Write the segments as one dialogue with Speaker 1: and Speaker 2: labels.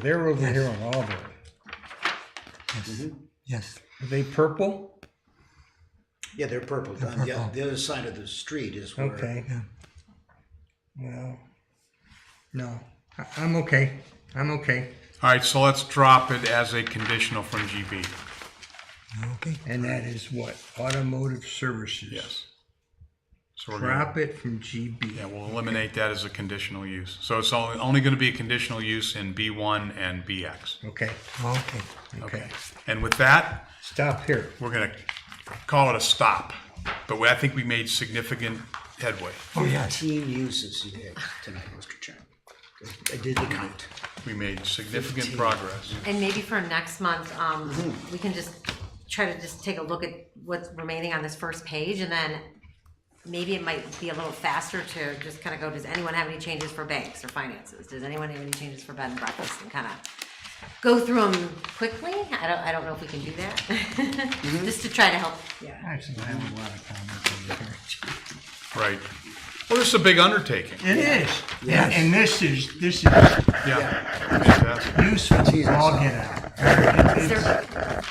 Speaker 1: They're over here on Auburn.
Speaker 2: Yes, yes,
Speaker 1: Are they purple?
Speaker 3: Yeah, they're purple. Um, Yeah,
Speaker 2: purple.
Speaker 3: the other side of the street is where.
Speaker 1: Okay.
Speaker 2: yeah.
Speaker 1: Well, no, I, I'm okay. I'm okay.
Speaker 4: All right, so let's drop it as a conditional from GB.
Speaker 2: Okay,
Speaker 1: And that is what? Automotive services.
Speaker 4: Yes. So we're gonna,
Speaker 1: Drop it from GB.
Speaker 4: yeah, we'll eliminate that as a conditional use. So it's only, only gonna be a conditional use in B1 and BX.
Speaker 1: Okay,
Speaker 2: okay.
Speaker 1: okay.
Speaker 4: And with that,
Speaker 1: Stop here.
Speaker 4: we're gonna call it a stop. But we- I think we made significant headway.
Speaker 2: Oh, yes.
Speaker 3: Fifteen uses you had tonight, Mr. Chairman. I did the count.
Speaker 4: We made significant progress.
Speaker 5: And maybe for next month, um, we can just try to just take a look at what's remaining on this first page and then maybe it might be a little faster to just kind of go, does anyone have any changes for banks or finances? Does anyone have any changes for bed and breakfast and kind of go through them quickly? I don't, I don't know if we can do that. Just to try to help. Yeah.
Speaker 1: Actually, I have a lot of comments over
Speaker 4: Right. Well, this is a big undertaking.
Speaker 1: here. It is.
Speaker 3: Yes.
Speaker 1: And this is, this is
Speaker 4: Yeah. Fantastic.
Speaker 1: useful.
Speaker 3: Jesus.
Speaker 1: I'll get out.
Speaker 5: Is there-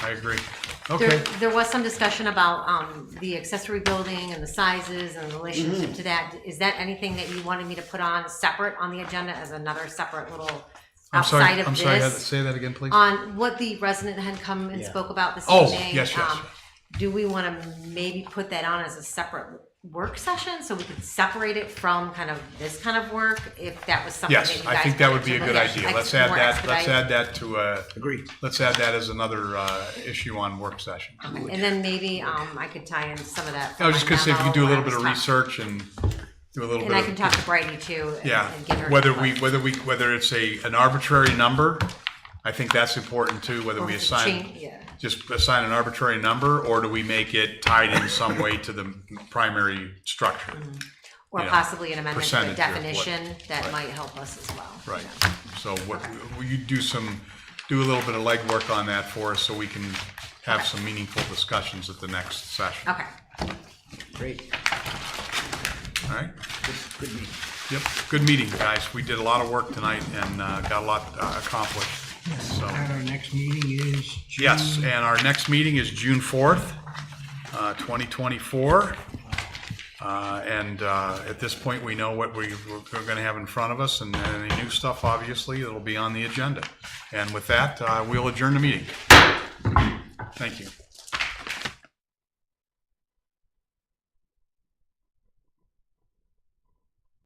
Speaker 4: I agree.
Speaker 5: There,
Speaker 4: Okay.
Speaker 5: there was some discussion about, um, the accessory building and the sizes and the relationship
Speaker 4: Mm.
Speaker 5: to that. Is that anything that you wanted me to put on separate on the agenda as another separate little
Speaker 4: I'm sorry.
Speaker 5: outside
Speaker 4: I'm
Speaker 5: of
Speaker 4: sorry. Heather,
Speaker 5: this?
Speaker 4: Say that again, please.
Speaker 5: On what the resident had come and
Speaker 3: Yeah.
Speaker 5: spoke about this
Speaker 4: Oh,
Speaker 5: evening?
Speaker 4: yes, yes,
Speaker 5: um, Do we wanna maybe put that on as a separate work session, so we could separate it from kind of this kind of work? If that was something that you
Speaker 4: Yes,
Speaker 5: guys.
Speaker 4: I think that would
Speaker 5: wanted
Speaker 4: be a
Speaker 5: to
Speaker 4: good
Speaker 5: look at,
Speaker 4: idea.
Speaker 5: ex-
Speaker 4: Let's add
Speaker 5: more
Speaker 4: that, let's
Speaker 5: expedite.
Speaker 4: add that to, uh,
Speaker 3: Agreed.
Speaker 4: let's add that as another, uh, issue on work session.
Speaker 5: And then maybe, um, I could tie in some of that.
Speaker 4: I was just gonna say, if you could do a
Speaker 5: memo
Speaker 4: little
Speaker 5: where
Speaker 4: bit
Speaker 5: I
Speaker 4: of
Speaker 5: was talking-
Speaker 4: research and do a little
Speaker 5: And I can
Speaker 4: bit of,
Speaker 5: talk to Brady too. and-
Speaker 4: yeah,
Speaker 5: and get her
Speaker 4: whether
Speaker 5: input.
Speaker 4: we, whether we, whether it's a, an arbitrary number, I think that's important too, whether
Speaker 5: Or
Speaker 4: we
Speaker 5: if it um, change-
Speaker 4: assign,
Speaker 5: yeah.
Speaker 4: just assign an arbitrary number, or do we make it tied in some way to the primary structure?
Speaker 5: Mm-hmm. Or
Speaker 4: yeah,
Speaker 5: possibly an amendment to the
Speaker 4: percentage of what-
Speaker 5: definition that
Speaker 4: right.
Speaker 5: might help us as well.
Speaker 4: Right, so what, will you do some, do a little bit of legwork on that for us, so we can have some meaningful discussions at the next session?
Speaker 5: Okay,
Speaker 3: Great.
Speaker 4: All right?
Speaker 3: Good, good meeting.
Speaker 4: Yep, good meeting, guys. We did a lot of work tonight and uh, got a lot uh, accomplished. So,
Speaker 1: And our next meeting is
Speaker 4: yes, and our next meeting is June 4th, uh, 2024. Uh, And uh, at this point, we know what we- we're going to have in front of us and any new stuff, obviously, that'll be on the agenda. And with that, uh, we'll adjourn the meeting. Thank you.